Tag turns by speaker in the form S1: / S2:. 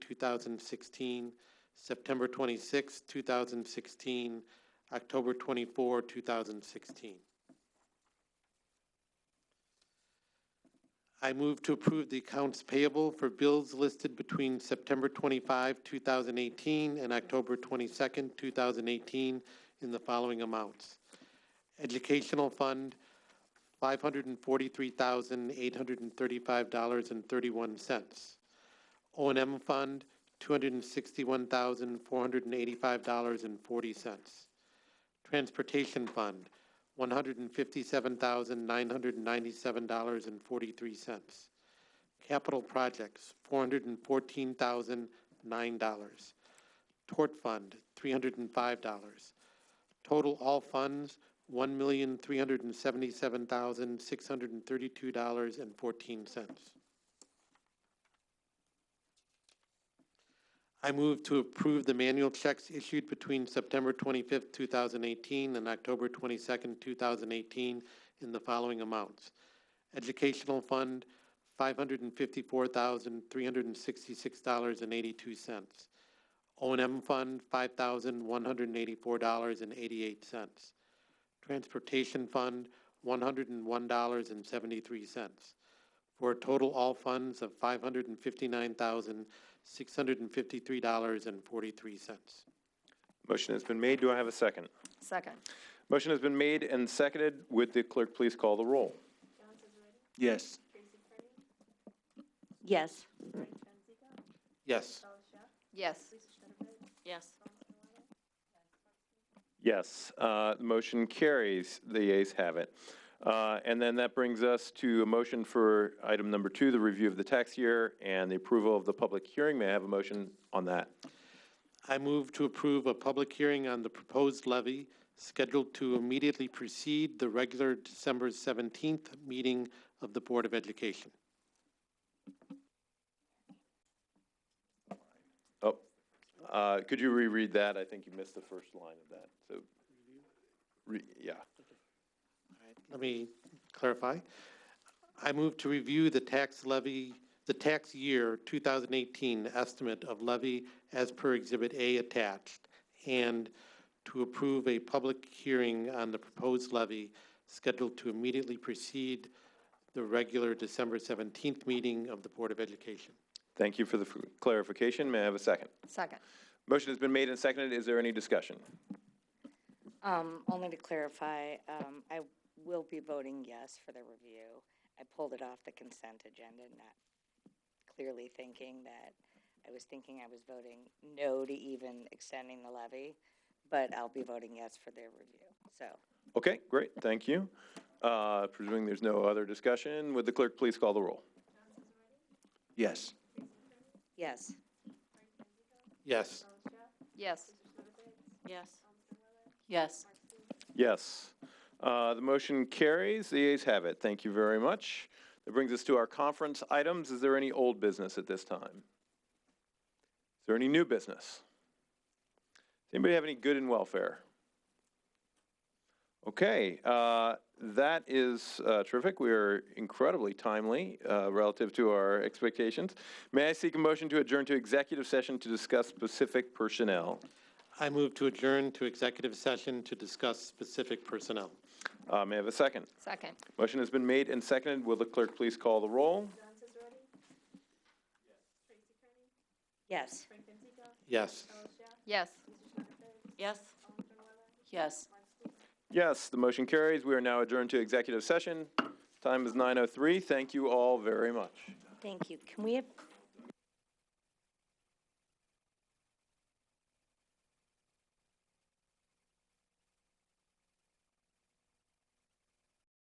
S1: thousand sixteen, September twenty-sixth, two thousand sixteen, October twenty-four, two thousand sixteen. I move to approve the accounts payable for bills listed between September 25, 2018 and October 22, 2018 in the following amounts. Educational Fund, $543,835.31. O and M Fund, $261,485.40. Transportation Fund, one hundred and fifty-seven thousand, nine hundred and ninety-seven dollars and forty-three cents. Capital projects, four hundred and fourteen thousand, nine dollars. Tort fund, three hundred and five dollars. Total all funds, one million, three hundred and seventy-seven thousand, six hundred and thirty-two dollars and fourteen cents. I move to approve the manual checks issued between September 25th, 2018 and October 22nd, 2018 in the following amounts. Educational Fund, $554,366.82. O and M Fund, $5,184.88. Transportation Fund, $101.73 for a total all funds of five hundred and fifty-nine thousand, six hundred and fifty-three dollars and forty-three cents.
S2: Motion has been made. Do I have a second?
S3: Second.
S2: Motion has been made and seconded. Would the clerk please call the roll?
S4: Yes.
S3: Yes.
S1: Yes.
S3: Yes. Yes.
S2: Yes, uh, the motion carries. The ayes have it. Uh, And then that brings us to a motion for item number two, the review of the tax year and the approval of the public hearing. May I have a motion on that?
S1: I move to approve a public hearing on the proposed levy scheduled to immediately precede the regular December seventeenth meeting of the Board of Education.
S2: Oh, uh, could you reread that? I think you missed the first line of that, so, re- yeah.
S1: Let me clarify. I move to review the tax levy, the tax year 2018 estimate of levy as per Exhibit A attached, and to approve a public hearing on the proposed levy scheduled to immediately precede the regular December 17th meeting of the Board of Education.
S2: Thank you for the f- clarification. May I have a second?
S3: Second.
S2: Motion has been made and seconded. Is there any discussion?
S5: Um, only to clarify, um, I will be voting yes for the review. I pulled it off the consent agenda, not clearly thinking that, I was thinking I was voting no to even extending the levy, but I'll be voting yes for their review, so.
S2: Okay, great, thank you. Uh, Presuming there's no other discussion, would the clerk please call the roll?
S4: Yes.
S5: Yes,
S1: Yes.
S3: Yes. Yes. Yes.
S2: Yes. Uh, The motion carries, the ayes have it. Thank you very much. That brings us to our conference items. Is there any old business at this time? Is there any new business? Does anybody have any good in welfare? Okay, uh, that is uh, terrific. We are incredibly timely uh, relative to our expectations. May I seek a motion to adjourn to executive session to discuss specific personnel?
S1: I move to adjourn to executive session to discuss specific personnel.
S2: Uh, May I have a second?
S3: Second.
S2: Motion has been made and seconded. Will the clerk please call the roll?
S1: Yes.
S5: yes.
S3: Yes. Yes. Yes.
S2: Yes, the motion carries. We are now adjourned to executive session. Time is 9:03. Thank oh you all very much.
S5: Thank you. Can we have